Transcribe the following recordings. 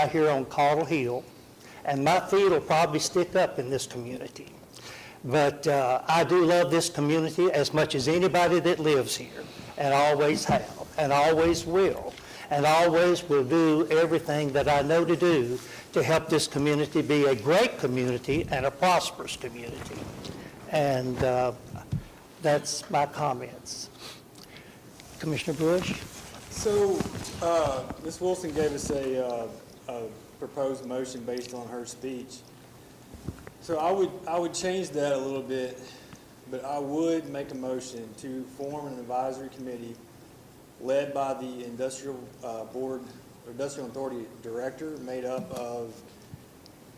out here on Caudle Hill, and my feet will probably stick up in this community. But uh, I do love this community as much as anybody that lives here, and always have, and always will, and always will do everything that I know to do to help this community be a great community and a prosperous community. And uh, that's my comments. Commissioner Bush? So, uh, Ms. Wilson gave us a, uh, a proposed motion based on her speech. So I would, I would change that a little bit, but I would make a motion to form an advisory committee led by the industrial uh, board, industrial authority director, made up of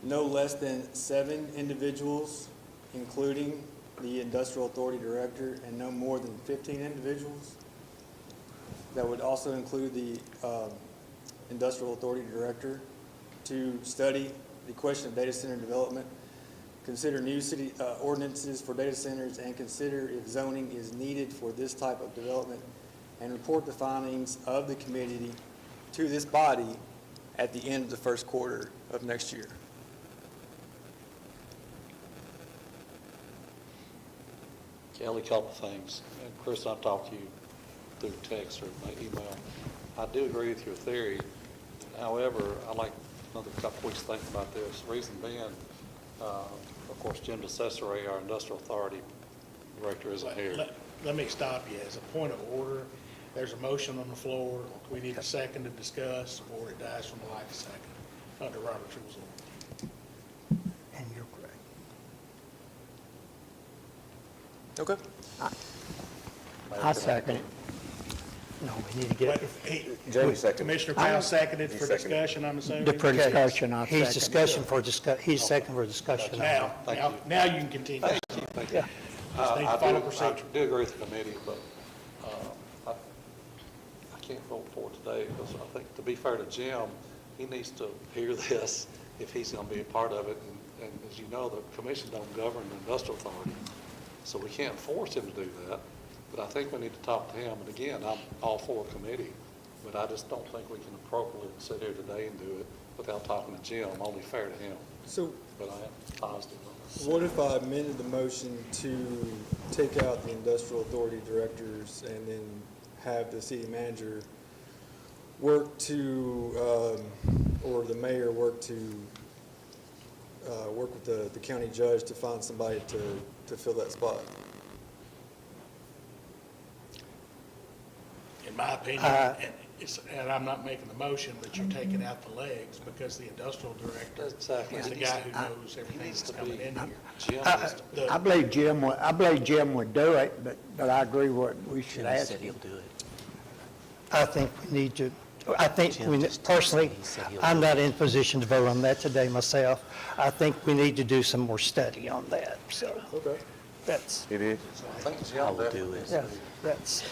no less than seven individuals, including the industrial authority director, and no more than 15 individuals. That would also include the um, industrial authority director to study the question of data center development, consider new city uh, ordinances for data centers, and consider if zoning is needed for this type of development, and report the findings of the committee to this body at the end of the first quarter of next year. Kelly, a couple of things. And Chris, I'll talk to you through text or by email. I do agree with your theory. However, I like another couple weeks to think about this. Reason being, uh, of course, Jim DeCesare, our industrial authority director, isn't here. Let- Let me stop you. As a point of order, there's a motion on the floor. We need a second to discuss, or it dies from lack of second under Robert's rules. of order. And you're correct. Okay. I second it. No, we need to get. But if he- Jamie seconded. Commissioner Powell seconded He for seconded. discussion, I'm assuming. The Okay. discussion, I He's discussion for discuss, he's second for discussion. Now, Thank now, you. now you can continue. Yeah. Just need Uh, I- I to follow do- procedure. I do agree with the committee, but uh, I I can't vote for it today because I think, to be fair to Jim, he needs to hear this if he's going to be a part of it. And- And as you know, the commission don't govern the industrial authority, so we can't force him to do that. But I think we need to talk to him. And again, I'm all for a committee, but I just don't think we can appropriately sit here today and do it without talking to Jim, only fair to him. So But I am positive on this. What if I amended the motion to take out the industrial authority directors and then have the city manager work to, um, or the mayor work to, uh, work with the, the county judge to find somebody to, to fill that spot? In my opinion, Uh, and it's, and I'm not making the motion, but you're taking out the legs because the industrial director Exactly. is the guy who knows everything that's coming in here. Uh, Jim I is I The- believe Jim would, I believe Jim would do it, but, but I agree what we should ask him. I think we need to, I think, we personally, I'm not in position to vote on that today myself. I think we need to do some more study on that, so Okay. that's, It is. I think Jim definitely is. yeah, that's,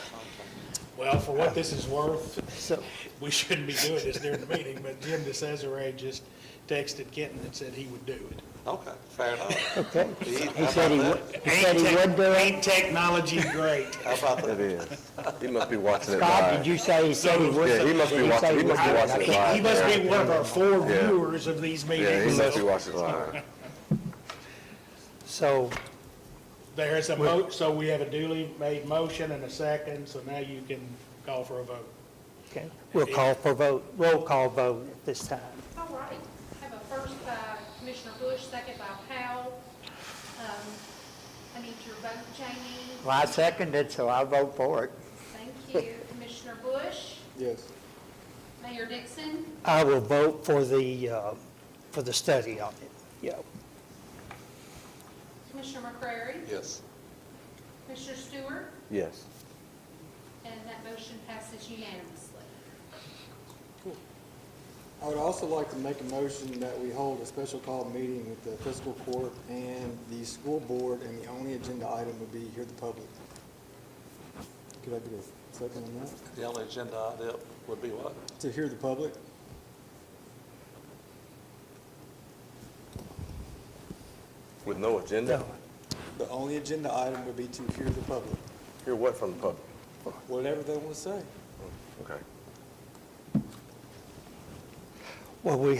Well, for what this is worth, so, we shouldn't be doing this during the meeting, but Jim DeCesare just texted Kenton and said he would do it. Okay, fair enough. okay. He He said he would, he said he would do Ain't it. technology great? How about It that? is. He must be watching it Scott, did live. you say he said he would? Yeah, he must be Did you watching, say he must be would? watching it live. He must be one of our four Yeah. viewers of these Yeah, he meetings. must be so watching it live. So, There is a mo, so we have a duly made motion and a second, so now you can call for a vote. okay, we'll call for vote, roll call vote at this time. All right, have a first by Commissioner Bush, second by Powell. Um, I need your vote, Jamie. Well, I seconded, so I'll vote for it. Thank you, Commissioner Bush, Yes. Mayor Dixon, I will vote for the, uh, for the study on it, yeah. Commissioner McCrary, Yes. Commissioner Stewart, Yes. and that motion passes unanimously. I would also like to make a motion that we hold a special call meeting with the fiscal court and the school board, and the only agenda item would be hear the public. Could I get a second on that? The only agenda item would be what? To hear the public? With no agenda? The only agenda item would be to hear the public, Hear what from the public? whatever they want to say. Okay. Well, we